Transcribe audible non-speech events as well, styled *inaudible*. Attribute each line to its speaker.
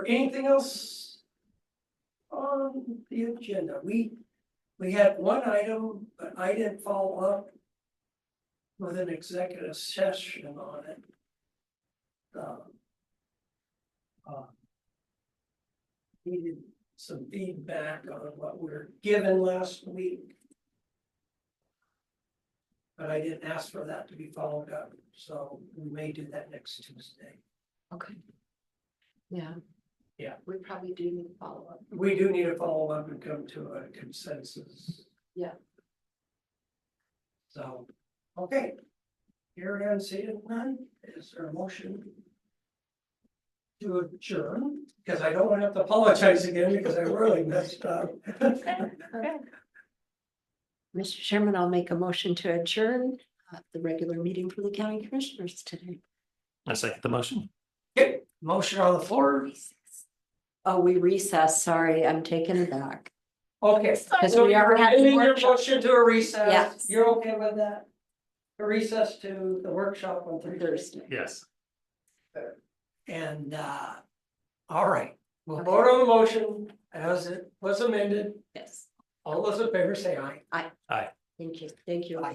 Speaker 1: Anything else? On the agenda, we, we had one item, but I didn't follow up. With an executive session on it. Um, uh, Needed some feedback on what we were given last week. But I didn't ask for that to be followed up, so we may do that next Tuesday.
Speaker 2: Okay. Yeah.
Speaker 1: Yeah.
Speaker 2: We probably do need to follow up.
Speaker 1: We do need to follow up and come to a consensus.
Speaker 2: Yeah.
Speaker 1: So, okay. Here again, seeing none, is there a motion? To adjourn, because I don't want to have to apologize again because I really messed up. *laughs*
Speaker 2: Mr. Chairman, I'll make a motion to adjourn uh, the regular meeting for the county commissioners today.
Speaker 3: I second the motion.
Speaker 1: Okay, motion on the floor,
Speaker 2: Oh, we recess. Sorry, I'm taking it back.
Speaker 1: okay.
Speaker 2: Because
Speaker 1: So
Speaker 2: we
Speaker 1: you're
Speaker 2: are having
Speaker 1: ending your
Speaker 2: workshop.
Speaker 1: motion to a recess,
Speaker 2: Yes.
Speaker 1: you're okay with that? A recess to the workshop on Thursday.
Speaker 2: Thursday.
Speaker 3: Yes.
Speaker 1: And uh, all right, we'll
Speaker 2: Okay.
Speaker 1: vote on the motion as it was amended.
Speaker 2: Yes,
Speaker 1: All those in favor say aye.
Speaker 2: thank you, thank you.
Speaker 1: Bye.